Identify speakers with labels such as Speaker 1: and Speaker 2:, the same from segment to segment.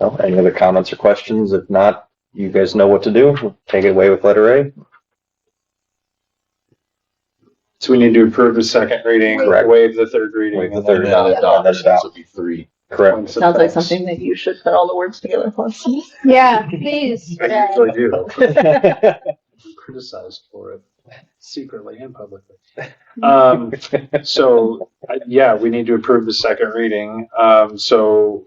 Speaker 1: Well, any other comments or questions? If not, you guys know what to do. Take it away with letter A.
Speaker 2: So we need to approve the second reading,
Speaker 1: Correct.
Speaker 2: waive the third reading.
Speaker 1: Waive the
Speaker 2: and then
Speaker 1: third
Speaker 2: adopt
Speaker 1: reading.
Speaker 2: the
Speaker 1: That's
Speaker 2: ordinance.
Speaker 1: out.
Speaker 3: would be three.
Speaker 1: Correct.
Speaker 2: Once
Speaker 4: Sounds like
Speaker 2: it's-
Speaker 4: something that you should put all the words together for.
Speaker 5: Yeah, please.
Speaker 2: I
Speaker 5: Brad.
Speaker 2: usually do.
Speaker 1: Correct.
Speaker 2: Criticized for it secretly and publicly. Um, so, I- yeah, we need to approve the second reading. Um, so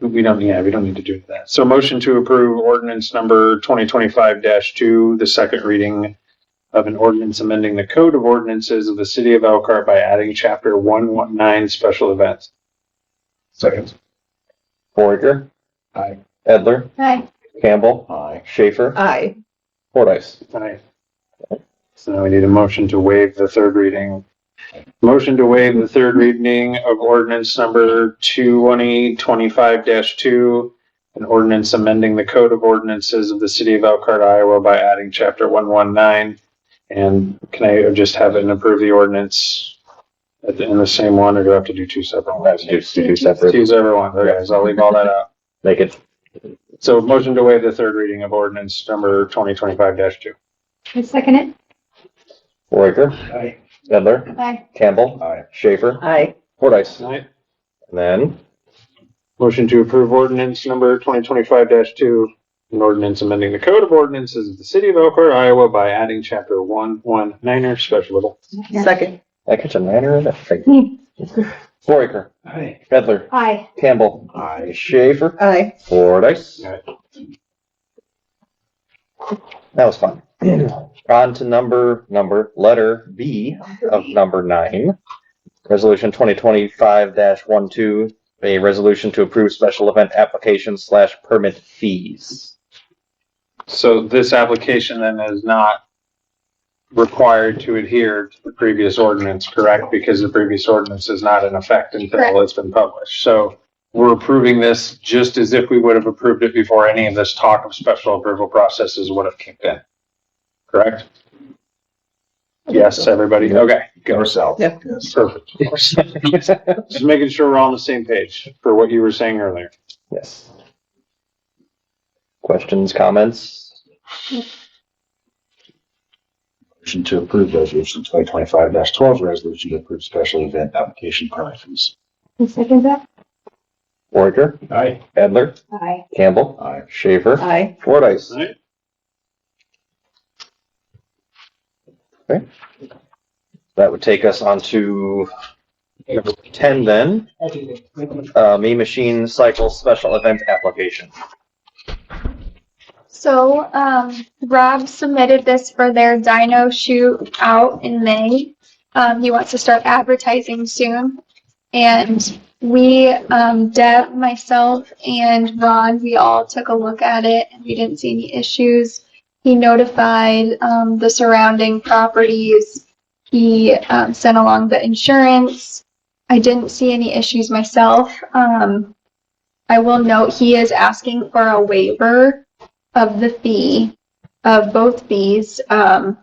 Speaker 2: we don't, yeah, we don't need to do that. So motion to approve ordinance number twenty twenty-five two, the second reading of an ordinance amending the code of ordinances of the city of Elkhart by adding chapter one one nine special events.
Speaker 3: Second.
Speaker 1: Forager,
Speaker 2: Aye.
Speaker 1: Edler,
Speaker 5: Hi.
Speaker 1: Campbell,
Speaker 3: Aye.
Speaker 1: Schaefer,
Speaker 4: Aye.
Speaker 1: Fordice.
Speaker 2: Aye. So now we need a motion to waive the third reading. Motion to waive the third reading of ordinance number two twenty twenty-five dash two. An ordinance amending the code of ordinances of the city of Elkhart, Iowa by adding chapter one one nine. And can I just have it and approve the ordinance at the, in the same one, or do I have to do two separate ones?
Speaker 1: Do two separate,
Speaker 2: Choose every one, okay, so I'll leave all that out.
Speaker 1: make it
Speaker 2: So motion to waive the third reading of ordinance number twenty twenty-five two.
Speaker 5: I second it.
Speaker 1: Forager,
Speaker 2: Aye.
Speaker 1: Edler,
Speaker 5: Bye.
Speaker 1: Campbell,
Speaker 3: Aye.
Speaker 1: Schaefer,
Speaker 4: Aye.
Speaker 1: Fordice. And then
Speaker 2: Motion to approve ordinance number twenty twenty-five two, an ordinance amending the code of ordinances of the city of Elkhart, Iowa by adding chapter one one niner special events.
Speaker 4: Second.
Speaker 1: I catch a niner in it. Forager, Edler,
Speaker 5: Hi.
Speaker 1: Campbell,
Speaker 3: Aye.
Speaker 1: Schaefer,
Speaker 4: Aye.
Speaker 1: Fordice.
Speaker 2: Aye.
Speaker 1: That was fun. On to number, number, letter B of number nine. Resolution twenty twenty-five dash one two, a resolution to approve special event applications slash permit fees.
Speaker 2: So this application then is not required to adhere to the previous ordinance, correct? Because the previous ordinance is not in effect until
Speaker 5: Correct.
Speaker 2: it's been published. So we're approving this just as if we would have approved it before any of this talk of special approval processes would have kicked in. Correct? Yes, everybody? Okay, good.
Speaker 3: Yourself.
Speaker 4: Yep.
Speaker 3: Yes.
Speaker 2: Perfect. Just making sure we're all on the same page for what you were saying earlier.
Speaker 1: Yes. Questions, comments?
Speaker 3: Motion to approve resolution twenty twenty-five twelve, resolution to approve special event application permit fees.
Speaker 5: I second that.
Speaker 1: Forager,
Speaker 3: Aye.
Speaker 1: Edler,
Speaker 5: Hi.
Speaker 1: Campbell,
Speaker 3: Aye.
Speaker 1: Schaefer,
Speaker 4: Aye.
Speaker 1: Fordice. That would take us on to number ten then. Uh, Me Machine Cycle Special Event Application.
Speaker 5: So, um, Rob submitted this for their dino shoot out in May. Um, he wants to start advertising soon. And we, um, Deb, myself, and Ron, we all took a look at it and we didn't see any issues. He notified, um, the surrounding properties. He, um, sent along the insurance. I didn't see any issues myself. Um, I will note he is asking for a waiver of the fee, of both fees. Um,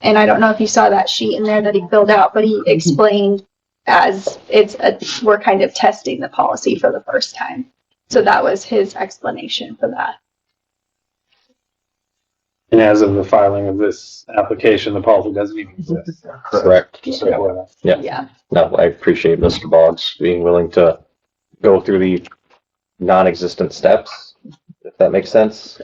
Speaker 5: and I don't know if you saw that sheet in there that he filled out, but he explained as it's a, we're kind of testing the policy for the first time. So that was his explanation for that.
Speaker 2: And as of the filing of this application, the policy doesn't even exist.
Speaker 1: Correct.
Speaker 2: Just so we're-
Speaker 1: Yeah. No, I appreciate Mr. Boggs being willing to go through the non-existent steps, if that makes sense.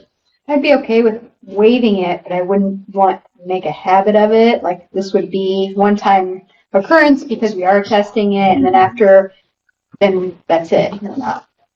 Speaker 5: I'd be okay with waiving it, but I wouldn't want to make a habit of it. Like this would be one time occurrence because we are testing it and then after, then that's it.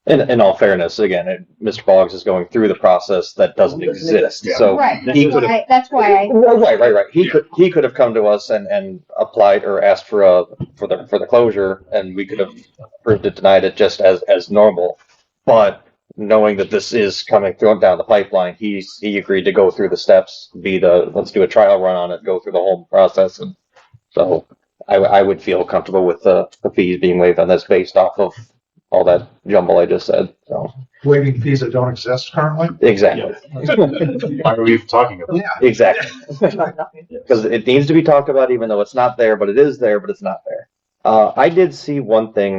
Speaker 1: In, in all fairness, again, it- Mr. Boggs is going through the process that doesn't exist,
Speaker 3: Yeah.
Speaker 1: so.
Speaker 5: Right,
Speaker 1: He could have,
Speaker 5: that's why
Speaker 1: right, right, right. He could, he could have come to us and, and applied or asked for a, for the, for the closure, and we could have approved it, denied it just as, as normal. But knowing that this is coming through down the pipeline, he's, he agreed to go through the steps, be the, let's do a trial run on it, go through the whole process, and so I, w- I would feel comfortable with the, the fees being waived on this based off of all that jumble I just said, so,
Speaker 6: waiving fees that don't exist currently.
Speaker 1: exactly,
Speaker 3: Why are we even talking about?
Speaker 1: exactly. because it needs to be talked about, even though it's not there, but it is there, but it's not there. Uh, I did see one thing